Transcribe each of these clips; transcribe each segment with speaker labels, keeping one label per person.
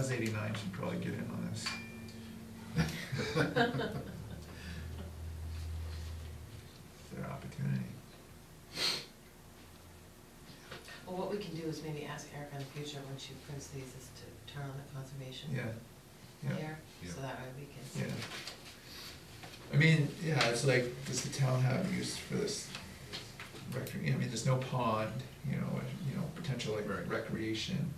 Speaker 1: Buzz eighty-nine should probably get in on this. Their opportunity.
Speaker 2: Well, what we can do is maybe ask Erica in the future, when she prints these, is to turn on the conservation
Speaker 1: Yeah, yeah,
Speaker 2: there, so that way we can
Speaker 1: yeah.
Speaker 2: see.
Speaker 1: I mean, yeah, it's like, does the town have use for this? Recre, I mean, there's no pond, you know, and, you know, potential like
Speaker 3: Right.
Speaker 1: recreation.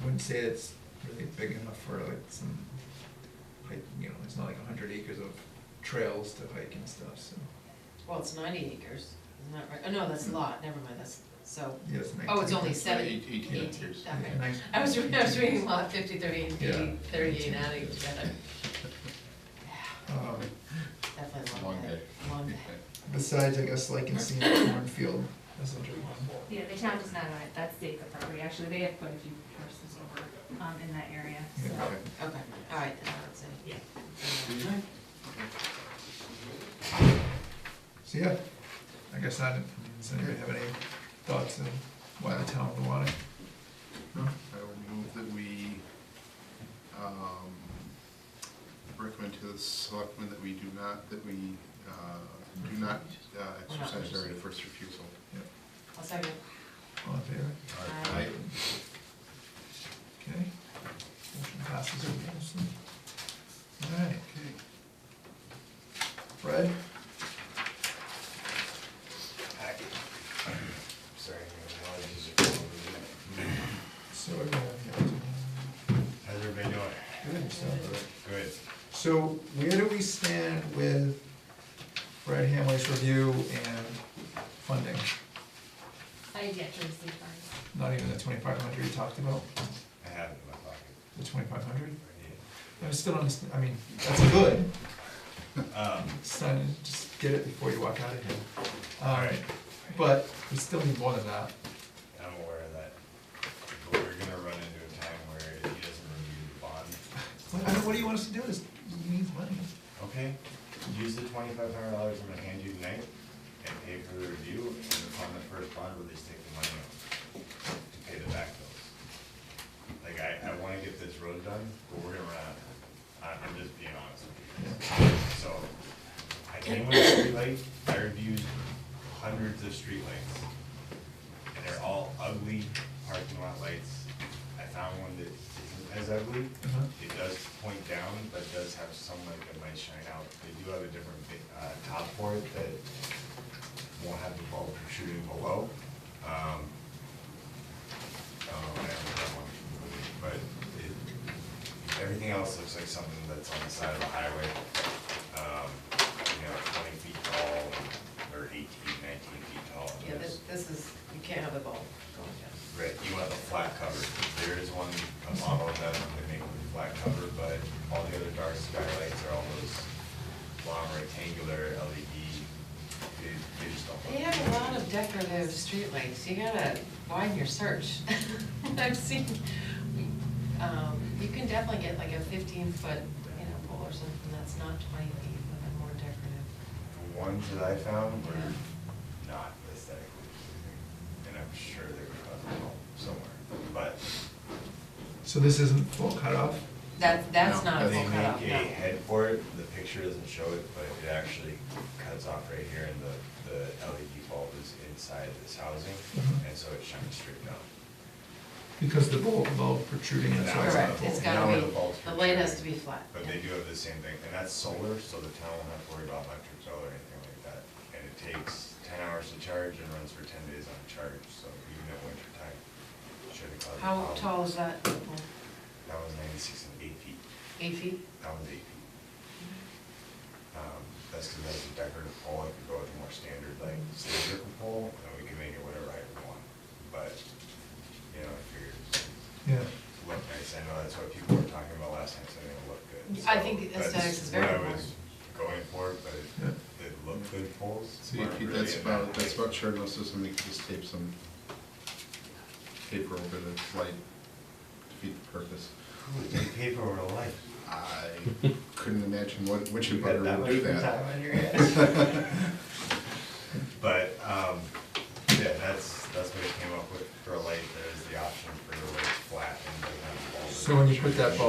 Speaker 1: I wouldn't say it's really big enough for like some, like, you know, it's not like a hundred acres of trails to hike and stuff, so.
Speaker 2: Well, it's ninety acres, isn't that right? Oh, no, that's a lot, never mind, that's, so,
Speaker 1: Yeah, it's Mm. nineteen.
Speaker 2: oh, it's only
Speaker 1: acres.
Speaker 2: seven,
Speaker 3: eight-
Speaker 2: eighteen,
Speaker 3: eighteen acres.
Speaker 2: okay.
Speaker 1: Yeah, nine-
Speaker 2: I was, re- I was
Speaker 1: 19
Speaker 2: reading
Speaker 1: acres.
Speaker 2: lot fifty, thirty, and
Speaker 1: Yeah.
Speaker 2: eighty, thirty, and
Speaker 1: 18.
Speaker 2: adding it together. Yeah,
Speaker 1: Um,
Speaker 2: Definitely a
Speaker 3: Long
Speaker 2: long day, long day.
Speaker 1: Besides, I guess, like in seeing the cornfield, that's a good one.
Speaker 4: Yeah, the town does not own it, that's state property, actually, they have quite a few parcels over, um, in that area, so.
Speaker 1: Yeah, okay.
Speaker 2: Okay, all right, then, that's it.
Speaker 4: Yeah.
Speaker 1: So, yeah, I guess I didn't, does anybody have any thoughts on why the town would want it?
Speaker 3: No, I will move that we, um, recommend to the selectmen that we do not, that we, uh, do not uh, exercise our right of first refusal.
Speaker 2: I'll second.
Speaker 1: All in favor?
Speaker 2: Aye.
Speaker 1: Okay. Motion passes unanimously. All right,
Speaker 3: Okay.
Speaker 1: Fred?
Speaker 5: Sorry, my allergies are coming over me.
Speaker 1: So everyone, yeah,
Speaker 5: How's everybody doing?
Speaker 1: good and stuff.
Speaker 5: Good.
Speaker 1: So where do we stand with Brad Hamley's review and funding?
Speaker 4: I had yet to receive ours.
Speaker 1: Not even the twenty-five hundred you talked about,
Speaker 5: I have it in my pocket.
Speaker 1: the twenty-five hundred?
Speaker 5: right
Speaker 1: I still don't, understand- I mean, that's good,
Speaker 5: here. Um,
Speaker 1: it's not, just get it before you walk out of here. Alright, but we still need more than that.
Speaker 5: I'm aware of that. But we're gonna run into a time where he doesn't review the bond.
Speaker 1: What, I mean, what do you want us to do, this needs money.
Speaker 5: Okay, use the twenty-five hundred dollars I'm gonna hand you tonight and pay for the review and upon the first bond release, take the money out to pay the back bills. Like, I, I wanna get this road done, but we're gonna run out of time. I- I'm just being honest with you. So, I came with a streetlight, I reviewed hundreds of streetlights. And they're all ugly parking lot lights. I found one that isn't as ugly.
Speaker 1: Uh-huh.
Speaker 5: It does point down, but does have some light that might shine out. They do have a different, uh, top for it that won't have the bulb protruding below. Um, Oh, I haven't done one, but it, everything else looks like something that's on the side of the highway. Um, You know, twenty feet tall, or 18, 19 feet tall.
Speaker 2: Yeah, this, this is, you can't have the ball going down.
Speaker 5: Right, you want the flat cover, there is one, a model of that they make with a flat cover, but all the other dark skylights are all those long rectangular LED, they, they just don't.
Speaker 2: They
Speaker 5: look
Speaker 2: have a
Speaker 5: good.
Speaker 2: lot of decorative streetlights, you gotta widen your search. I've seen, um, you can definitely get like a fifteen foot, you know, pole or something that's not twenty feet, but they're more decorative.
Speaker 5: The ones that I found were
Speaker 2: Yeah.
Speaker 5: not aesthetically pleasing, and I'm sure they were on the wall somewhere, but.
Speaker 1: So this isn't full cutoff?
Speaker 2: That, that's
Speaker 3: No,
Speaker 2: not a
Speaker 5: They
Speaker 2: full cutoff,
Speaker 5: make a
Speaker 2: no.
Speaker 5: head for it, the picture doesn't show it, but it actually cuts off right here, and the, the LED bulb is inside this housing,
Speaker 1: Mhm.
Speaker 5: and so it shines straight down.
Speaker 1: Because the bulb, bulb protruding and so it's not
Speaker 2: Correct,
Speaker 1: full.
Speaker 2: it's
Speaker 5: Now
Speaker 2: gotta
Speaker 5: where
Speaker 2: be,
Speaker 5: the bulbs
Speaker 2: the light has
Speaker 5: protrude.
Speaker 2: to be flat.
Speaker 5: But
Speaker 2: yeah.
Speaker 5: they do have the same thing, and that's solar, so the town won't have to worry about electric bill or anything like that. And it takes ten hours to charge and runs for ten days on charge, so even at winter time, shouldn't cause a problem.
Speaker 2: How tall is that? pole?
Speaker 5: That was ninety-six and eight feet,
Speaker 2: Eight feet?
Speaker 5: that was eight feet. Um, that's because that's a decorative pole, I could go with a more standard, like, cylindrical pole, and we can make it whatever height we want. But, you know, I figured,
Speaker 1: Yeah,
Speaker 5: look nice, I know that's what people were talking about last time, so it'll look good.
Speaker 2: I
Speaker 5: So
Speaker 2: think
Speaker 5: that's
Speaker 2: aesthetics is very
Speaker 5: What I
Speaker 2: important.
Speaker 5: was going for, but
Speaker 1: Yeah.
Speaker 5: it, it looked good poles.
Speaker 3: See,
Speaker 5: weren't really
Speaker 3: that's
Speaker 5: in
Speaker 3: about,
Speaker 5: that
Speaker 3: that's
Speaker 5: height.
Speaker 3: about sure, unless somebody could just tape some paper over the light to feed the purpose.
Speaker 5: Who would take paper over a light?
Speaker 3: I couldn't imagine what, which
Speaker 5: You got
Speaker 3: abutter
Speaker 5: that
Speaker 3: would
Speaker 5: much
Speaker 3: do
Speaker 5: time
Speaker 3: that.
Speaker 5: on your hands. But, um, yeah, that's, that's what I came up with for a light, there's the option for the light flat and. doesn't have a bulb in
Speaker 1: so
Speaker 5: it.
Speaker 1: when you put that bulb